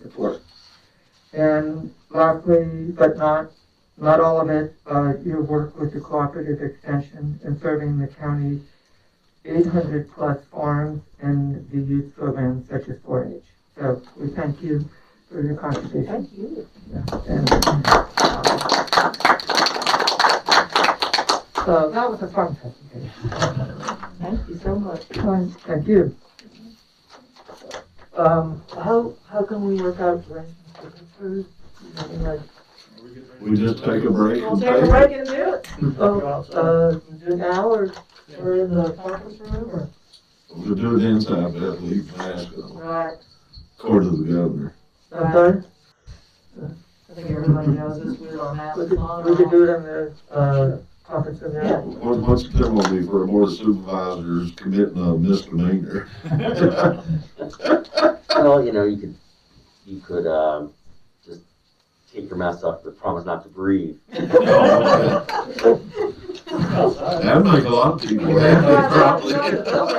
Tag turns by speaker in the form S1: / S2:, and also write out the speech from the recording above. S1: support. And lastly, but not, not all of it, uh, your work with the cooperative extension in serving the county eight hundred plus farms and the youth programs such as four H. So we thank you for your contribution.
S2: Thank you.
S1: And- uh, So that was a fun presentation.
S2: Thank you so much.
S1: Fine, Thank you. Um,
S2: How, how can we work out arrangements for the food? I mean, like,
S3: We just take a break
S2: We'll
S3: and
S2: take a
S3: pay.
S2: break and do it.
S1: oh, uh, now or,
S2: We're in the conference room or?
S3: We'll do it inside, but leave Nashville,
S2: Right.
S3: according to the governor.
S1: I'm sorry,
S2: I think everybody knows this, we don't have.
S1: we could, we could do it in the, uh, conference room now.
S3: What, what's the penalty for a board of supervisors committing a misdemeanor?
S4: Well, you know, you could, you could, um, just take your mask off, but promise not to breathe.
S3: That make a lot of people happy, probably.